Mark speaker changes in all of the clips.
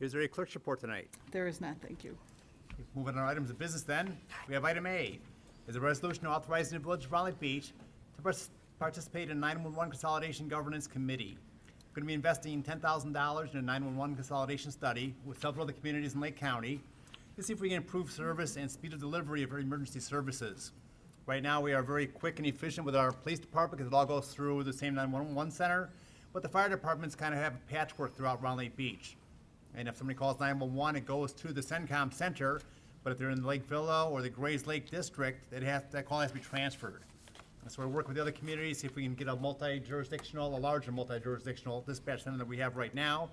Speaker 1: Is there a clerk's report tonight?
Speaker 2: There is not, thank you.
Speaker 1: Moving on to items of business then, we have item A, is a resolution authorizing the Village of Rolling Beach to pers- participate in 911 Consolidation Governance Committee. Going to be investing $10,000 in a 911 consolidation study with several other communities in Lake County to see if we can improve service and speed of delivery of our emergency services. Right now, we are very quick and efficient with our police department because it all goes through the same 911 center, but the fire departments kind of have a patchwork throughout Round Lake Beach. And if somebody calls 911, it goes to the CENTCOM center, but if they're in Lake Villa or the Grays Lake District, it has, that call has to be transferred. And so we're working with the other communities, see if we can get a multi-jurisdictional, a larger multi-jurisdictional dispatch center that we have right now.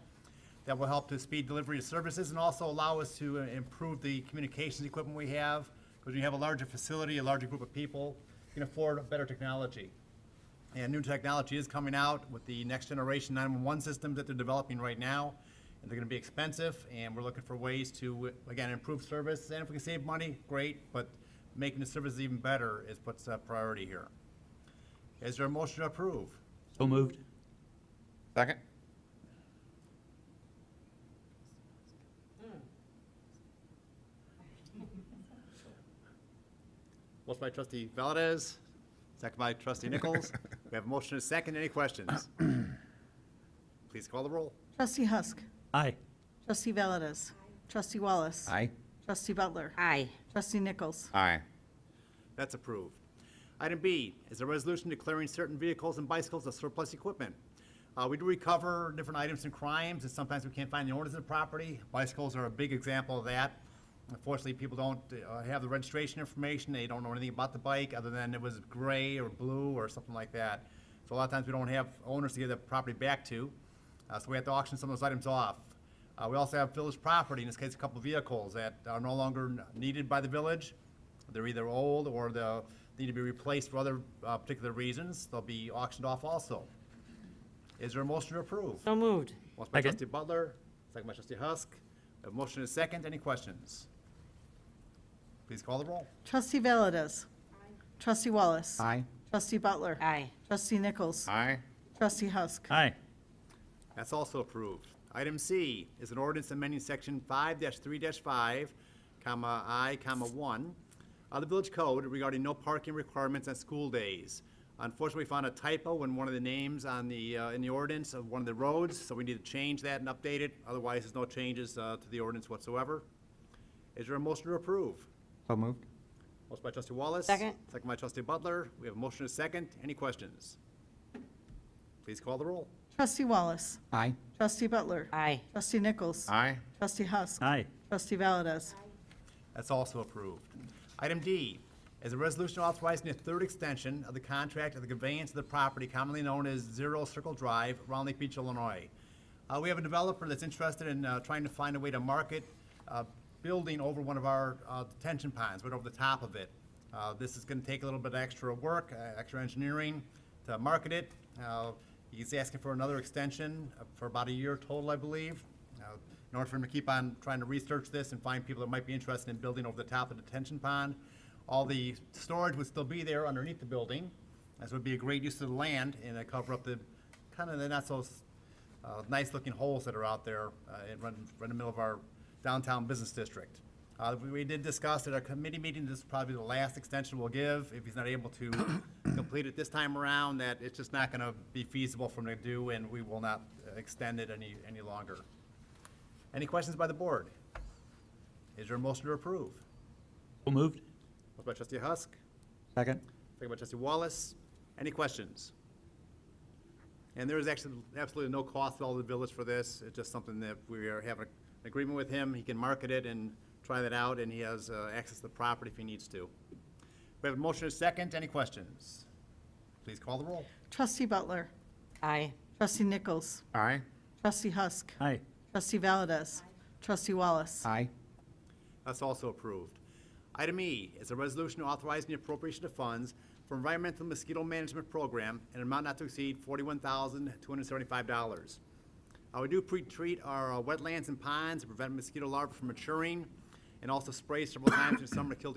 Speaker 1: That will help to speed delivery of services and also allow us to uh, improve the communications equipment we have. Because when you have a larger facility, a larger group of people, you can afford better technology. And new technology is coming out with the next generation 911 systems that they're developing right now. And they're going to be expensive, and we're looking for ways to, again, improve service. And if we can save money, great, but making the service even better is what's a priority here. Is there a motion to approve?
Speaker 3: So moved.
Speaker 4: Second?
Speaker 1: Motion by trustee Valdez, second by trustee Nichols. We have a motion and a second. Any questions? Please call the roll.
Speaker 2: Trustee Husk.
Speaker 3: Aye.
Speaker 2: Trustee Valdez. Trustee Wallace.
Speaker 4: Aye.
Speaker 2: Trustee Butler.
Speaker 5: Aye.
Speaker 2: Trustee Nichols.
Speaker 4: Aye.
Speaker 1: That's approved. Item B is a resolution declaring certain vehicles and bicycles as surplus equipment. Uh, we do recover different items and crimes, and sometimes we can't find the owners of the property. Bicycles are a big example of that. Unfortunately, people don't, uh, have the registration information, they don't know anything about the bike, other than it was gray or blue or something like that. So a lot of times, we don't have owners to give the property back to, uh, so we have to auction some of those items off. Uh, we also have village property, in this case, a couple vehicles that are no longer n- needed by the village. They're either old or they need to be replaced for other uh, particular reasons. They'll be auctioned off also. Is there a motion to approve?
Speaker 5: So moved.
Speaker 1: Motion by
Speaker 3: Second.
Speaker 1: trustee Butler, second by trustee Husk. A motion is second. Any questions? Please call the roll.
Speaker 2: Trustee Valdez. Trustee Wallace.
Speaker 4: Aye.
Speaker 2: Trustee Butler.
Speaker 5: Aye.
Speaker 2: Trustee Nichols.
Speaker 4: Aye.
Speaker 2: Trustee Husk.
Speaker 3: Aye.
Speaker 1: That's also approved. Item C is an ordinance amending section five three five, comma, I, comma, one of the village code regarding no parking requirements on school days. Unfortunately, we found a typo in one of the names on the, uh, in the ordinance of one of the roads, so we need to change that and update it. Otherwise, there's no changes, uh, to the ordinance whatsoever. Is there a motion to approve?
Speaker 4: So moved?
Speaker 1: Motion by trustee Wallace.
Speaker 5: Second.
Speaker 1: Second by trustee Butler. We have a motion and a second. Any questions? Please call the roll.
Speaker 2: Trustee Wallace.
Speaker 4: Aye.
Speaker 2: Trustee Butler.
Speaker 5: Aye.
Speaker 2: Trustee Nichols.
Speaker 4: Aye.
Speaker 2: Trustee Husk.
Speaker 3: Aye.
Speaker 2: Trustee Valdez.
Speaker 1: That's also approved. Item D is a resolution authorizing the third extension of the contract of the conveyance of the property commonly known as Zero Circle Drive, Round Lake Beach, Illinois. Uh, we have a developer that's interested in, uh, trying to find a way to market, uh, building over one of our, uh, detention ponds, right over the top of it. Uh, this is gonna take a little bit of extra work, uh, extra engineering to market it. Uh, he's asking for another extension uh, for about a year total, I believe. Uh, in order for him to keep on trying to research this and find people that might be interested in building over the top of the detention pond. All the storage would still be there underneath the building, as would be a great use of the land and uh, cover up the, kind of the not so s- uh, nice looking holes that are out there uh, in, right in- right in the middle of our downtown business district. Uh, we- we did discuss at our committee meeting, this is probably the last extension we'll give, if he's not able to complete it this time around, that it's just not gonna be feasible for him to do, and we will not uh, extend it any, any longer. Any questions by the board? Is there a motion to approve?
Speaker 3: So moved.
Speaker 1: Motion by trustee Husk,
Speaker 4: Second?
Speaker 1: second by trustee Wallace. Any questions? And there is actually absolutely no cost at all to the village for this. It's just something that we are having an agreement with him. He can market it and try that out, and he has uh, access to the property if he needs to. We have a motion and a second. Any questions? Please call the roll.
Speaker 2: Trustee Butler.
Speaker 5: Aye.
Speaker 2: Trustee Nichols.
Speaker 4: Aye.
Speaker 2: Trustee Husk.
Speaker 3: Aye.
Speaker 2: Trustee Valdez. Trustee Wallace.
Speaker 4: Aye.
Speaker 1: That's also approved. Item E is a resolution authorizing the appropriation of funds for environmental mosquito management program in an amount not to exceed forty-one thousand, two hundred and seventy-five dollars. Uh, we do pre-treat our uh, wetlands and ponds to prevent mosquito larvae from maturing and also spray several times in the summer to kill